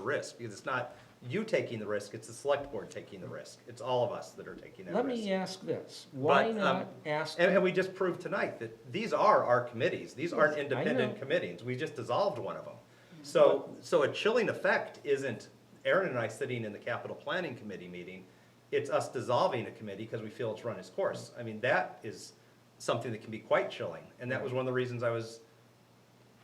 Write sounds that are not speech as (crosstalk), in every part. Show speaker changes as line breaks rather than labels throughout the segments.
the risk, because it's not you taking the risk, it's the select board taking the risk. It's all of us that are taking that risk.
Let me ask this,
But,
why
um,
not ask,
And, and we just proved tonight that these are our committees, these aren't
Yes, I
independent
know. Mm-hmm.
committees, we just dissolved one of them. So, so a chilling effect isn't Aaron and I sitting in the capital planning committee meeting, it's us dissolving a committee because we feel it's run its course. I mean, that is something that can be quite chilling, and that was one of the reasons I was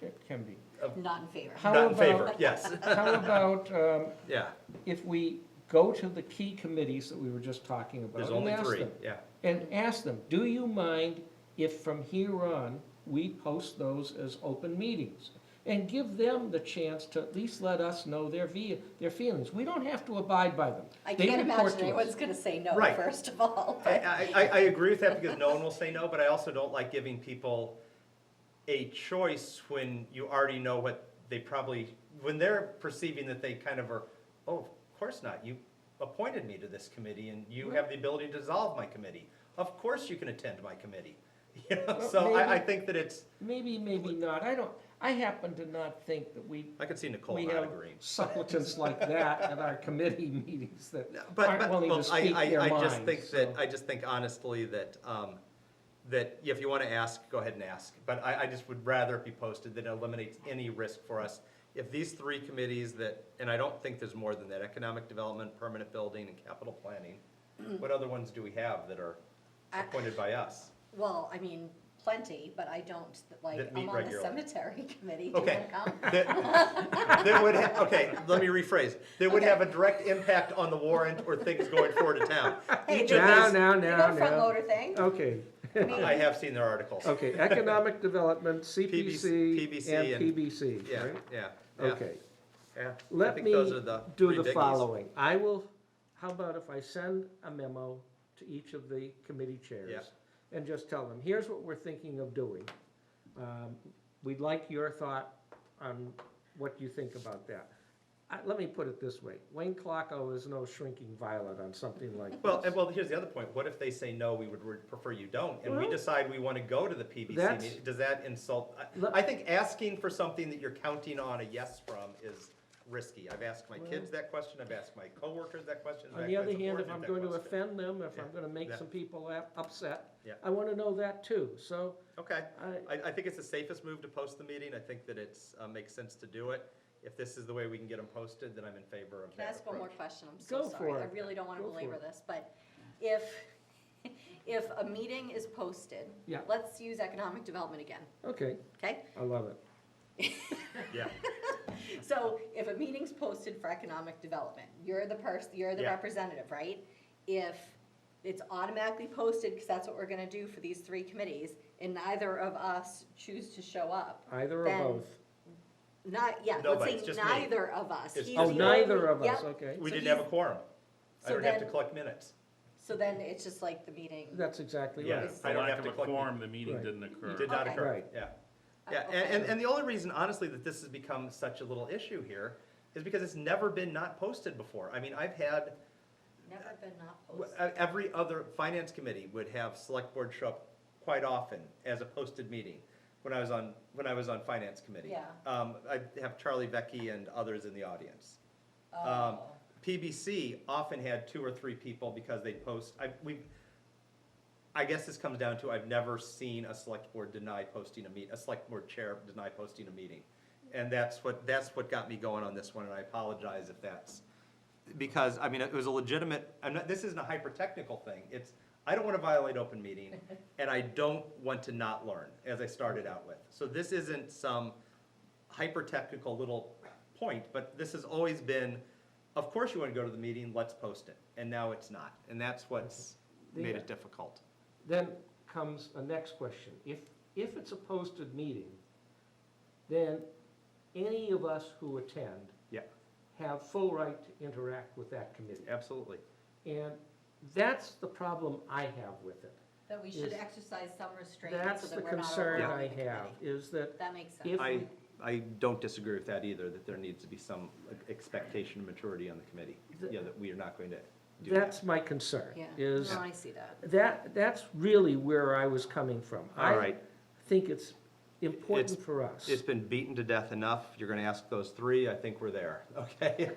it can be.
Not in favor.
How
not in favor,
about- (laughs)
yes,
How about um,
yeah,
if we go to the key committees that we were just talking about?
there's
and
only
ask
three,
them-
yeah.
And ask them, do you mind if from here on, we post those as open meetings? And give them the chance to at least let us know their via, their feelings. We don't have to abide by them.
I
They
can't
report
imagine
to us.
anyone's gonna say no,
Right.
first of all.
I, I, I- I agree with that because no one will say no, but I also don't like giving people a choice when you already know what they probably, when they're perceiving that they kind of are, oh, of course not, you appointed me to this committee and you have the ability to dissolve my committee. Of course you can attend my committee. (laughs) You know,
Well,
so I, I
maybe-
think that it's,
Maybe, maybe not. I don't, I happen to not think that we
I could see Nicole
we
not
have
agreeing.
supplicants like that at our committee (laughs) meetings that
No, But,
aren't
but,
willing
well,
to
I,
speak
I,
their
I just
minds,
think that,
so.
I just think honestly that, um, that if you wanna ask, go ahead and ask. But I, I just would rather it be posted that it eliminates any risk for us. If these three committees that, and I don't think there's more than that, economic development, permanent building, and capital
(clears throat)
planning. What other ones do we have that are
I-
appointed by us?
Well, I mean, plenty, but I don't, like,
That meet
I'm on the
regularly.
cemetery (laughs) committee, (laughs) do you
Okay.
wanna come?
(laughs) That that would, ha- okay, let me rephrase. That would
Okay.
have a direct impact on the warrant or things going forward to town.
(laughs) Hey,
Each
they
of
got-
these,
now,
They
now,
got a front
now.
loader thing?
Okay,
I mean,
I have seen their articles.
okay, economic development,
PBC
CPC and
and-
PBC,
Yeah,
right?
yeah, yeah.
Okay,
Yeah, I
let
think
me
those are the three
do the
biggies.
following. I will, how about if I send a memo to each of the committee chairs? And just tell them, here's what we're thinking of doing. Um, We'd like your thought on what you think about that. I- Let me put it this way, Wayne Clocko is no shrinking violet on something like this.
Well, and well, here's the other point. What if they say no? We would re- prefer you don't, and we
Well-
decide we want to go to the PBC
That's-
meeting. Does that insult? I,
Let-
I think asking for something that you're counting on a yes from is risky. I've asked my kids that question. I've asked my coworkers that question. and
On
I've
the
asked
other
the
hand,
board
if
that
I'm going to
question.
offend them, if I'm
Yeah,
gonna make
yeah.
some people a- upset,
Yeah.
I wanna know that too, so
Okay.
I,
I, I think it's the safest move to post the meeting. I think that it's, uh, makes sense to do it. If this is the way we can get them posted, then I'm in favor of
Can I
that
ask one more
approach.
question? I'm so
Go
sorry.
for
I
it.
really don't wanna
Go for
belabor
it.
this, but if, (laughs) if a meeting is posted,
Yeah.
let's use economic development again,
okay,
okay?
I love it.
Yeah,
So if a meeting's posted for economic development, you're the person, you're the
Yeah.
representative, right? If it's automatically posted, because that's what we're gonna do for these three committees, and neither of us choose to show up,
Either or
Then-
both.
not, yeah,
No,
let's
but
say
it's just me.
neither of us.
It's-
He's
Oh,
the
neither
only-
of us,
yep.
okay.
we
So
didn't have a
he's-
quorum. I
so
don't have to
then-
collect minutes.
So then it's just like the meeting.
That's exactly
Yeah.
right.
Yes.
I
For
don't
lack
have
of
to
a
collect.
quorum, the meeting
Right.
didn't occur.
Did not
Okay.
occur,
Right.
yeah.
Oh,
Yeah,
okay.
and, and, and the only reason honestly that this has become such a little issue here is because it's never been not posted before. I mean, I've had,
Never been not
w-
posted.
uh, every other finance committee would have select board show up quite often as a posted meeting when I was on, when I was on finance committee.
Yeah.
Um, I have Charlie Vecchi and others in the audience. Um,
Oh.
PBC often had two or three people because they post, I, we, I guess this comes down to, I've never seen a select board deny posting a meet, a select board chair deny posting a meeting. And that's what, that's what got me going on this one, and I apologize if that's, because, I mean, it was a legitimate, I'm not, this isn't a hyper-technical thing, it's, I don't wanna violate open meeting, and I don't want to not learn, as I started out with. So this isn't some hyper-technical little point, but this has always been, of course you wanna go to the meeting, let's post it, and now it's not, and that's what's made it difficult.
Then comes a next question. If, if it's a posted meeting, then any of us who attend
Yeah.
have full right to interact with that committee.
Absolutely.
And that's the problem I have with it.
That we
should
should
Yes.
exercise some restraint so
That's the
that we're not
concern I
overwhelming the
have,
committee.
is that
That makes sense.
if
I,
we
I don't disagree with that either, that there needs to be some like, expectation of maturity on the committee,
Th-
yeah, that we are not going to do that.
That's my concern,
Yeah,
is,
no, I see that.
that, that's really where I was coming from.
All right,
I think it's, important for us.
It's been beaten to death enough. You're gonna ask those three. I think we're there, (laughs) okay?